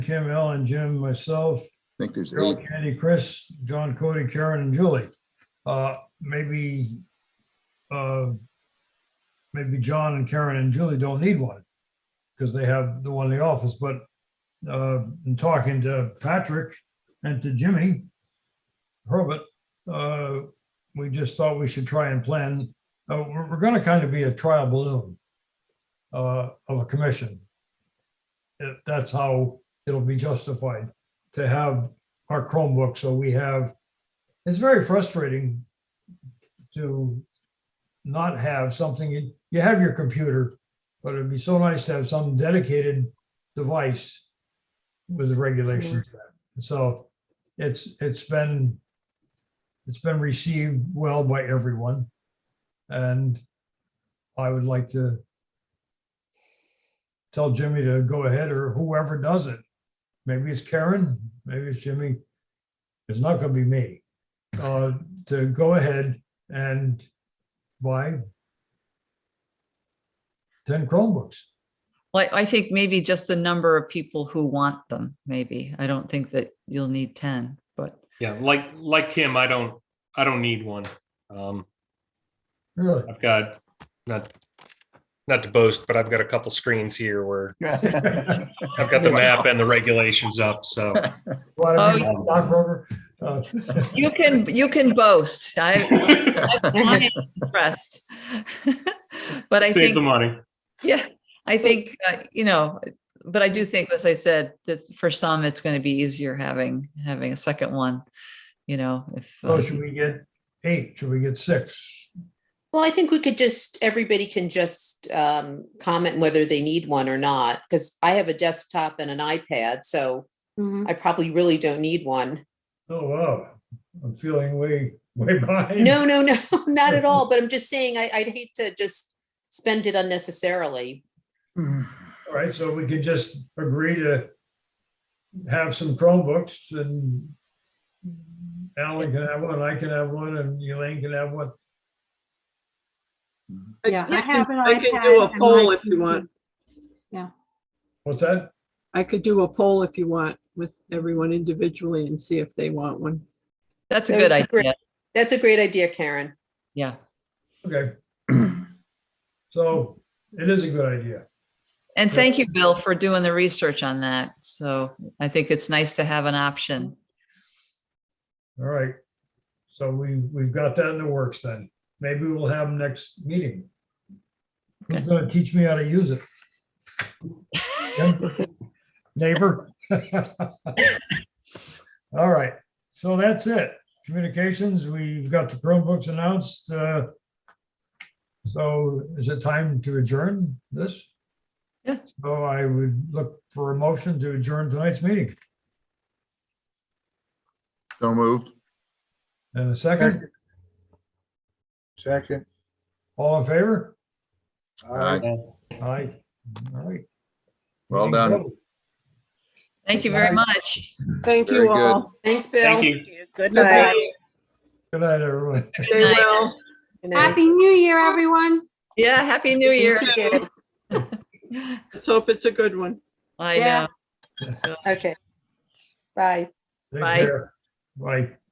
Kim, Ellen, Jim, myself, I think there's Carol, eight. Candy, Chris, John, Cody, Karen, and Julie. Uh, Maybe, uh, maybe John and Karen and Julie don't need one because they have the one in the office, but uh, in talking to Patrick and to Jimmy Herbert, uh, we just thought we should try and plan, uh, we're, we're gonna kind of be a trial balloon uh, of a commission. If That's how it'll be justified to have our Chromebook, so we have, it's very frustrating to not have something, you- you have your computer, but it'd be so nice to have some dedicated device with the regulations. So it's, it's been, it's been received well by everyone. And I would like to tell Jimmy to go ahead or whoever does it. Maybe it's Karen, maybe it's Jimmy. It's not gonna be me. Uh, to go ahead and buy ten Chromebooks. Well, I I think maybe just the number of people who want them, maybe. I don't think that you'll need 10, but Yeah, like, like Kim, I don't, I don't need one. Um, Really? I've got, not, not to boast, but I've got a couple screens here where I've got Oh the map and the regulations up, so. What, I mean, Oh. stockbroker? Uh, you can, you can boast. I, I'm impressed. But I Save the think, money. yeah, I think, uh, you know, but I do think, as I said, that for some, it's going to be easier having, having a second one, you know, if. uh, So should we get eight? Should we get six? Well, I think we could just, everybody can just um, comment whether they need one or not, because I have a desktop and an iPad, so Mm-hmm. I probably really don't need one. Oh, wow. I'm feeling way, way Mm. behind. No, no, no, not at Mm-hmm. all, but I'm just saying, I, I'd hate to just spend it unnecessarily. All right, so we can just agree to have some Chromebooks and Alan can have one, I can have one, and Elaine can have one. Yeah, I have an I can do iPad a and poll my if you want. What's that? I could do a poll if you want with everyone individually and see if they want one. That's a good idea. That's a great idea, Karen. Yeah. Okay. So it is a good idea. And Yeah. thank you, Bill, for doing the research on that. So I think it's nice to have an option. All right. So we, we've got that in the works then. Maybe we'll have them next meeting. Who's Okay. gonna teach me how to use it? Jim? Neighbor? All right, so that's it. Communications, we've got the Chromebooks announced. uh, So is it time to adjourn this? Yeah. So I would look for a motion to adjourn tonight's meeting. So moved. And a second, Second. all in favor? Aye. Aye. All right. Well done. Thank you very much. Thank Very you good. all. Thanks, Bill. Thank you. Good night. Good night, everyone. Stay night. well. Happy New Year, everyone. Yeah, Happy New Year. You too. Let's hope it's a good one. I Yeah. know. Okay. Bye. Take Bye. care. Bye.